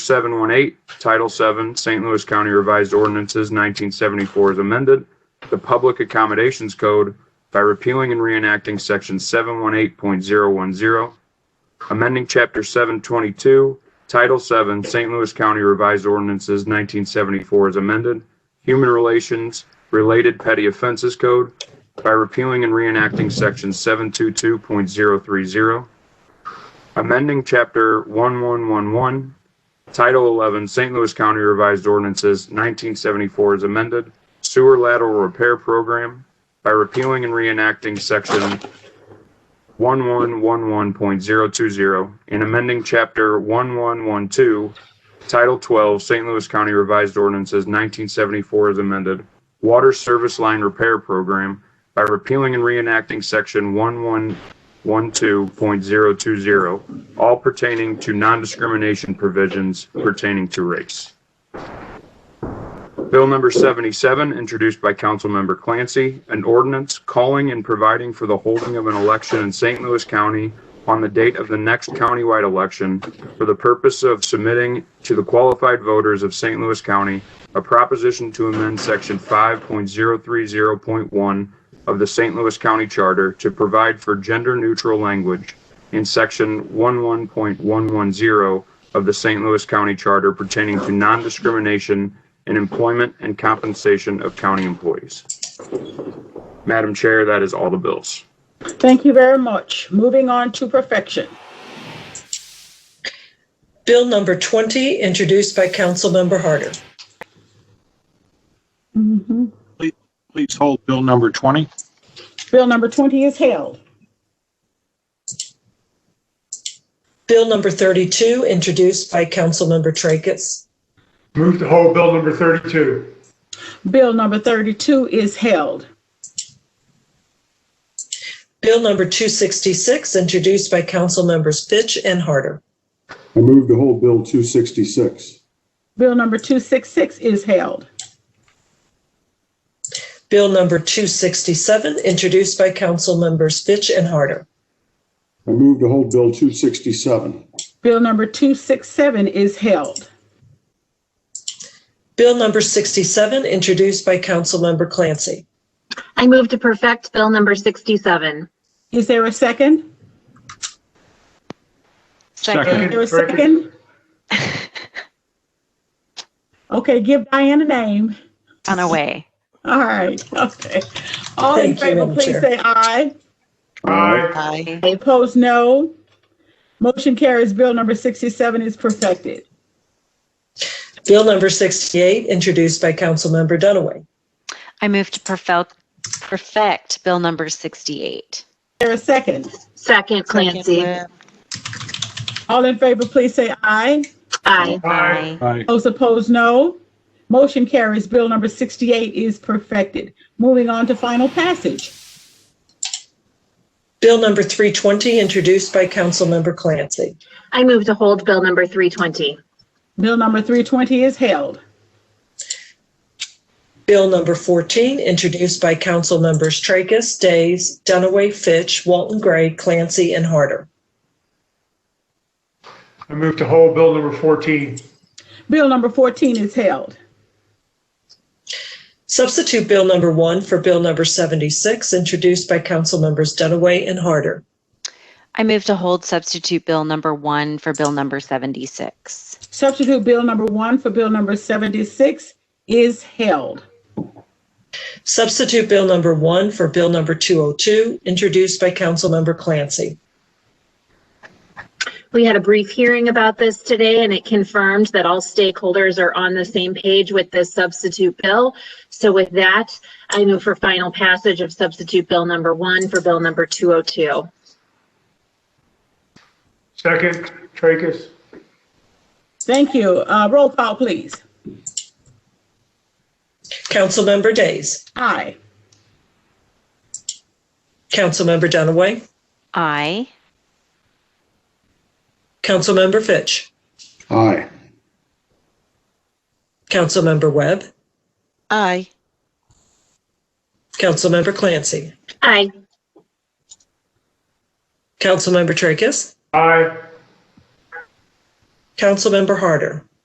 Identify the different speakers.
Speaker 1: 718, Title 7, St. Louis County Revised Ordinances 1974 as amended, the Public Accommodations Code by repealing and reenacting Section 718.010, amending Chapter 722, Title 7, St. Louis County Revised Ordinances 1974 as amended, Human Relations Related Petty Offenses Code by repealing and reenacting Section 722.030, amending Chapter 1111, Title 11, St. Louis County Revised Ordinances, 1974 is amended, sewer lateral repair program by repealing and reenacting section 1111.020 and amending chapter 1112, Title 12, St. Louis County Revised Ordinances, 1974 is amended, water service line repair program by repealing and reenacting section 1112.020 all pertaining to non-discrimination provisions pertaining to race. Bill number 77, introduced by Councilmember Clancy, an ordinance calling and providing for the holding of an election in St. Louis County on the date of the next countywide election for the purpose of submitting to the qualified voters of St. Louis County a proposition to amend Section 5.030.1 of the St. Louis County Charter to provide for gender-neutral language in section 11.110 of the St. Louis County Charter pertaining to non-discrimination in employment and compensation of county employees. Madam Chair, that is all the bills.
Speaker 2: Thank you very much. Moving on to perfection.
Speaker 3: Bill number 20, introduced by Councilmember Harder.
Speaker 4: Please hold Bill number 20.
Speaker 2: Bill number 20 is held.
Speaker 3: Bill number 32, introduced by Councilmember Tracus.
Speaker 5: Move to hold Bill number 32.
Speaker 2: Bill number 32 is held.
Speaker 3: Bill number 266, introduced by Councilmembers Fitch and Harder.
Speaker 6: I move to hold Bill 266.
Speaker 2: Bill number 266 is held.
Speaker 3: Bill number 267, introduced by Councilmembers Fitch and Harder.
Speaker 6: I move to hold Bill 267.
Speaker 2: Bill number 267 is held.
Speaker 3: Bill number 67, introduced by Councilmember Clancy.
Speaker 7: I move to perfect Bill number 67.
Speaker 2: Is there a second?
Speaker 4: Second.
Speaker 2: Is there a second? Okay, give Diane a name.
Speaker 8: on a way.
Speaker 2: All right, okay. All in
Speaker 3: Thank you,
Speaker 2: favor,
Speaker 3: Madam
Speaker 2: please
Speaker 3: Chair.
Speaker 2: say aye.
Speaker 5: Aye.
Speaker 8: Aye.
Speaker 2: Opposed, no. Motion carries. Bill number 67 is perfected.
Speaker 3: Bill number 68, introduced by Councilmember Dunaway.
Speaker 8: I move to perfect, perfect Bill number
Speaker 2: Is
Speaker 8: 68.
Speaker 2: there a second?
Speaker 7: Second, Clancy.
Speaker 2: All in favor, please say aye.
Speaker 7: Aye.
Speaker 5: Aye.
Speaker 4: Aye.
Speaker 2: Those opposed, no. Motion carries. Bill number 68 is perfected. Moving on to final passage.
Speaker 3: Bill number 320, introduced by Councilmember Clancy.
Speaker 7: I move to hold Bill number 320.
Speaker 2: Bill number 320 is held.
Speaker 3: Bill number 14, introduced by council members Tracus, Days, Dunaway, Fitch, Walton Gray, Clancy, and Harder.
Speaker 5: I move to hold Bill number 14.
Speaker 2: Bill number 14 is held.
Speaker 3: Substitute Bill number 1 for Bill number 76, introduced by council members Dunaway and Harder.
Speaker 8: I move to hold substitute Bill number 1 for Bill number 76.
Speaker 2: Substitute Bill number 1 for Bill number 76 is held.
Speaker 3: Substitute Bill number 1 for Bill number 202, introduced by council member Clancy.
Speaker 7: We had a brief hearing about this today and it confirmed that all stakeholders are on the same page with this substitute bill. So with that, I move for final passage of substitute Bill number 1 for Bill number 202.
Speaker 5: Second, Tracus.
Speaker 2: Thank you. Uh, Roll call, please.
Speaker 3: Councilmember Days,
Speaker 2: Aye.
Speaker 3: Councilmember Dunaway,
Speaker 8: Aye.
Speaker 3: Councilmember Fitch,
Speaker 6: Aye.
Speaker 3: Councilmember Webb,
Speaker 9: Aye.
Speaker 3: Councilmember Clancy,
Speaker 7: Aye.
Speaker 3: Councilmember Tracus,
Speaker 5: Aye.
Speaker 3: Councilmember Harder.